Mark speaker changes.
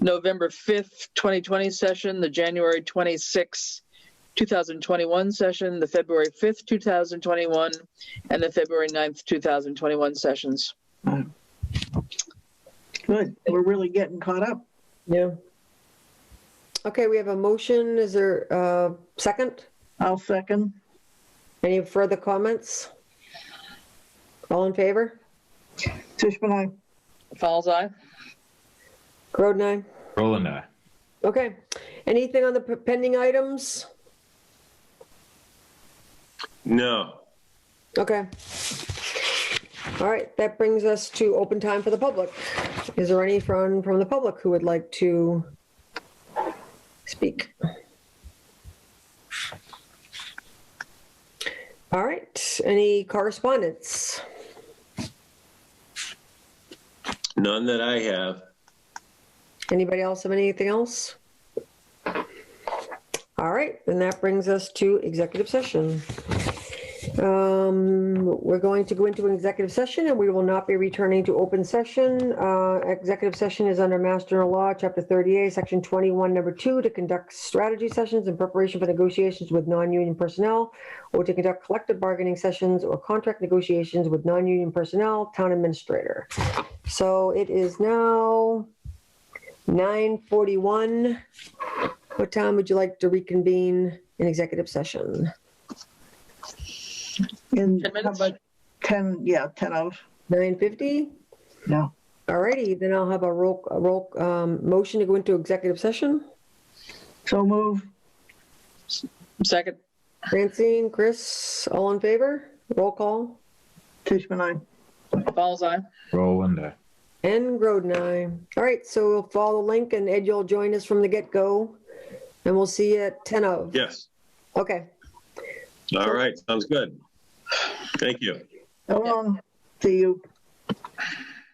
Speaker 1: November 5th, 2020 session, the January 26th, 2021 session, the February 5th, 2021, and the February 9th, 2021 sessions.
Speaker 2: Good. We're really getting caught up.
Speaker 3: Yeah.
Speaker 4: Okay, we have a motion. Is there a second?
Speaker 2: I'll second.
Speaker 4: Any further comments? All in favor?
Speaker 2: Tishman, I,
Speaker 1: Falls eye?
Speaker 4: Groden, aye.
Speaker 5: Roland, aye.
Speaker 4: Okay. Anything on the pending items?
Speaker 6: No.
Speaker 4: Okay. All right, that brings us to open time for the public. Is there any from, from the public who would like to speak? All right, any correspondence?
Speaker 6: None that I have.
Speaker 4: Anybody else have anything else? All right, then that brings us to executive session. Um, We're going to go into an executive session and we will not be returning to open session. Uh, Executive session is under Mass General Law, Chapter 38, Section 21, Number 2, to conduct strategy sessions in preparation for negotiations with non-union personnel or to conduct collective bargaining sessions or contract negotiations with non-union personnel, town administrator. So it is now 9:41. What time would you like to reconvene in executive session?
Speaker 1: 10
Speaker 2: in, how
Speaker 1: minutes?
Speaker 2: about 10, yeah, 10 of,
Speaker 4: 9:50?
Speaker 2: yeah.
Speaker 4: Alrighty, then I'll have a roll, a roll, um, motion to go into executive session.
Speaker 2: So move.
Speaker 1: Second.
Speaker 4: Francine, Chris, all in favor? Roll call.
Speaker 2: Tishman, I.
Speaker 1: Falls eye?
Speaker 5: Roland, aye.
Speaker 4: And Groden, aye. All right, so we'll follow the link and Ed, you'll join us from the get-go. And we'll see you at 10 of.
Speaker 6: Yes.
Speaker 4: Okay,
Speaker 6: All right. Sounds good. Thank you.
Speaker 2: Ellen, see you.